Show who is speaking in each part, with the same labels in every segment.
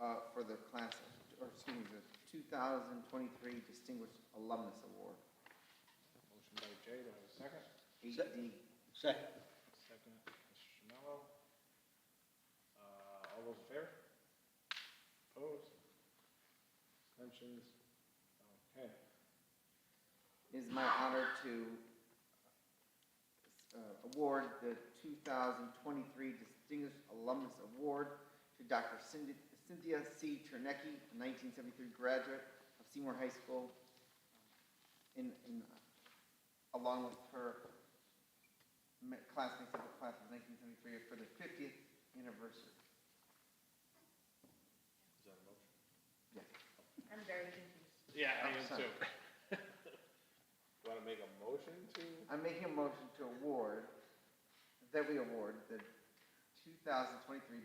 Speaker 1: uh, for the class, of- or excuse me, the 2023 Distinguished Alumnus Award,
Speaker 2: Motion by Jay, do I have a second?
Speaker 1: 8D.
Speaker 3: Second.
Speaker 2: Second, Mr. Mello. Uh, all those in favor? Opposed? Abstentions? Okay.
Speaker 1: It is my honor to uh, award the 2023 Distinguished Alumnus Award to Dr. Cindy- Cynthia C. Chernecki, a 1973 graduate of Seymour High School, uh, in, in, uh, along with her ma- classmates of the class of 1973 for their 50th anniversary.
Speaker 2: Is that a motion?
Speaker 1: Yes.
Speaker 4: I'm very confused.
Speaker 2: Yeah, I am
Speaker 1: Awesome.
Speaker 2: too. Want to make a motion to?
Speaker 1: I'm making a motion to award, that we award the 2023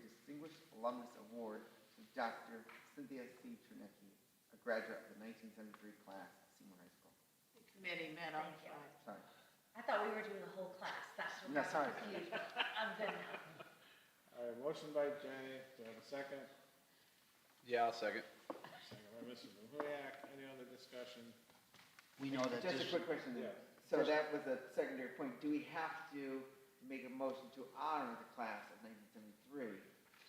Speaker 1: Distinguished Alumnus Award to Dr. Cynthia C. Trunecki, a graduate of the 1973 class at Seymour High School.
Speaker 5: Committee met on
Speaker 4: Thank you.
Speaker 5: Friday.
Speaker 1: Sorry.
Speaker 4: I thought we were doing the whole class, that's what
Speaker 1: No,
Speaker 4: got
Speaker 1: sorry.
Speaker 4: me confused. I'm good now.
Speaker 2: All right, motion by Jay, do I have a second?
Speaker 3: Yeah, I'll second.
Speaker 2: Second by Mr. Mahuyak, any other discussion?
Speaker 3: We know Oh, that
Speaker 1: Just
Speaker 3: this,
Speaker 1: a quick question.
Speaker 2: Yeah.
Speaker 1: So that was a secondary point. Do we have to make a motion to honor the class of 1973?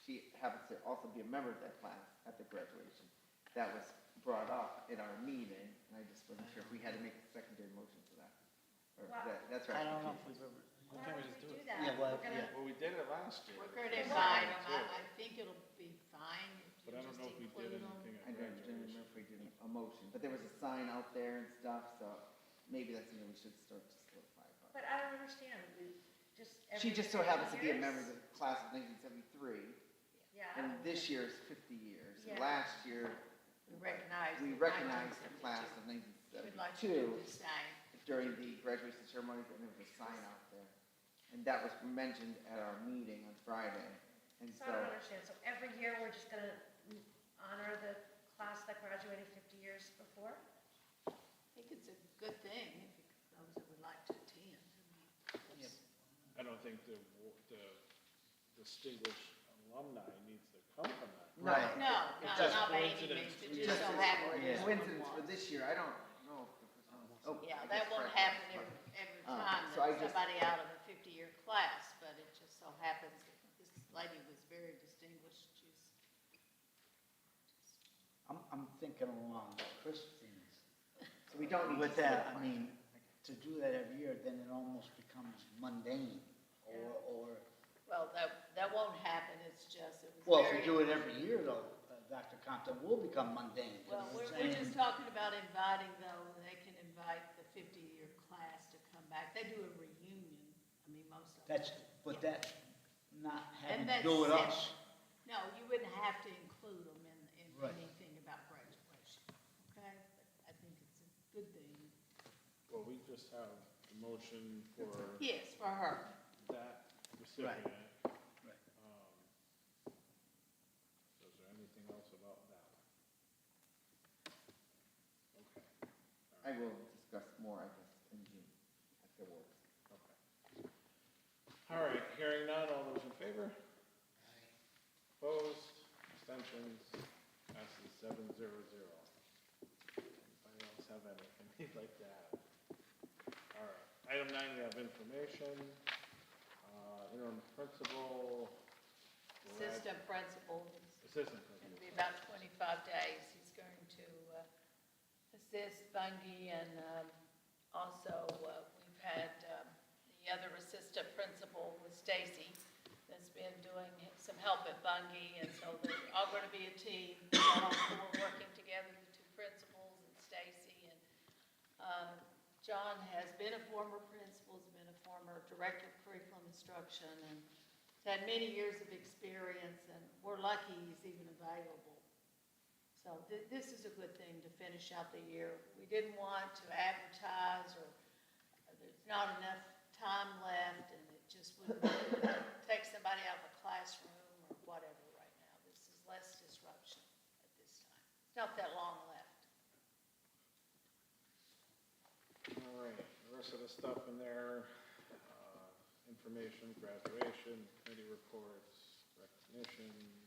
Speaker 1: She happens to also be a member of that class at the graduation. That was brought up in our meeting, and I just wasn't sure if we had to make a secondary motion for that. Or
Speaker 4: Wow.
Speaker 1: that- That's right.
Speaker 3: I don't know if we've ever,
Speaker 4: Why would we do that?
Speaker 3: Yeah, well,
Speaker 4: We're gonna-
Speaker 2: Well, we did it last year.
Speaker 5: We're going to
Speaker 2: It's
Speaker 5: invite
Speaker 2: fine,
Speaker 5: them, I,
Speaker 2: too.
Speaker 5: I think it'll be fine if
Speaker 2: But I
Speaker 5: you
Speaker 2: don't
Speaker 5: just
Speaker 2: know if we
Speaker 5: include
Speaker 2: did
Speaker 5: them.
Speaker 2: anything
Speaker 1: I
Speaker 2: at
Speaker 1: don't remember
Speaker 2: graduation.
Speaker 1: if we did a motion, but there was a sign out there and stuff, so maybe that's something we should start to solidify. but-
Speaker 4: But I don't understand, we just.
Speaker 1: She
Speaker 4: every
Speaker 1: just so
Speaker 4: three
Speaker 1: happens to be a
Speaker 4: years?
Speaker 1: member of the class of 1973,
Speaker 4: Yeah. I
Speaker 1: and
Speaker 4: don't-
Speaker 1: this year is 50 years.
Speaker 4: Yeah.
Speaker 1: Last year,
Speaker 5: We recognize.
Speaker 1: we
Speaker 5: the
Speaker 1: recognized the
Speaker 5: 1972.
Speaker 1: class of
Speaker 5: We'd like to do
Speaker 1: 1972
Speaker 5: the same.
Speaker 1: during the graduation ceremonies, and there was a sign out there. And that was mentioned at our meeting on Friday, and
Speaker 4: So I don't
Speaker 1: so,
Speaker 4: understand, so every year we're just gonna honor the class that graduated fifty years before?
Speaker 5: I think it's a good thing if it- those that would like to attend. I mean,
Speaker 3: Yep.
Speaker 2: I don't think the, wa- the distinguished alumni needs to come from that.
Speaker 3: Right.
Speaker 5: No,
Speaker 2: It's
Speaker 5: not,
Speaker 2: just
Speaker 5: not by any
Speaker 2: coincidence.
Speaker 5: means, it
Speaker 1: It's
Speaker 5: just
Speaker 1: just
Speaker 5: so
Speaker 1: a
Speaker 5: happened.
Speaker 3: Yeah.
Speaker 5: that
Speaker 1: coincidence for
Speaker 5: someone-
Speaker 1: this year, I don't know if the person was- oh,
Speaker 5: Yeah,
Speaker 1: I
Speaker 5: that
Speaker 1: guess
Speaker 5: won't
Speaker 1: Friday.
Speaker 5: happen every, every
Speaker 1: Uh,
Speaker 5: time,
Speaker 1: so I
Speaker 5: that
Speaker 1: just-
Speaker 5: somebody out of a fifty-year class, but it just so happens that this lady was very distinguished, she's
Speaker 3: I'm, I'm thinking along Christine's.
Speaker 1: So we don't need to.
Speaker 3: With that, I
Speaker 1: solidify.
Speaker 3: mean, to do that every year, then it almost becomes mundane or, or,
Speaker 5: Well, that, that won't happen, it's just, it
Speaker 3: well,
Speaker 5: was very.
Speaker 3: if we do it every year though, uh, Dr. Compton will become mundane. 'cause
Speaker 5: Well,
Speaker 3: it's
Speaker 5: we're,
Speaker 3: the
Speaker 5: we're
Speaker 3: same-
Speaker 5: just talking about inviting though, they can invite the fifty-year class to come back, they do a reunion, I mean, most of them.
Speaker 3: That's, but that's not having
Speaker 5: And
Speaker 3: to
Speaker 5: that's
Speaker 3: do with
Speaker 5: separate.
Speaker 3: us.
Speaker 5: No, you wouldn't have to include them in, in
Speaker 3: Right.
Speaker 5: anything about graduation, okay? But I think it's a good thing,
Speaker 2: Well, we just have the motion for
Speaker 5: yes, for her.
Speaker 2: that recipient.
Speaker 3: Right.
Speaker 2: Um, So is there anything else about that one? Okay,
Speaker 1: I will discuss more, I guess, in June afterwards.
Speaker 2: okay. All right, hearing none, all those in favor? Opposed, abstentions, passes seven zero zero. Anybody else have anything they'd like to add? All right, item nine, we have information, uh, interim principal. Brad-
Speaker 5: Assistant principal is
Speaker 2: Assistant
Speaker 5: It'll
Speaker 2: principal.
Speaker 5: be about 25 days. He's going to uh, assist Bungie and um, also uh, we've had um, the other assistant principal with Stacy that's been doing some help at Bungie. And so they're all going to be a team. We're working together, the two principals and Stacy. And uh, John has been a former principal, has been a former director of curriculum instruction and has had many years of experience and we're lucky he's even available. So thi- this is a good thing to finish out the year. We didn't want to advertise or uh, there's not enough time left and it just would take somebody out of the classroom or whatever right now. This is less disruption at this time. It's not that long left.
Speaker 2: All right, the rest of the stuff in there, uh, information, graduation, committee reports, recognition,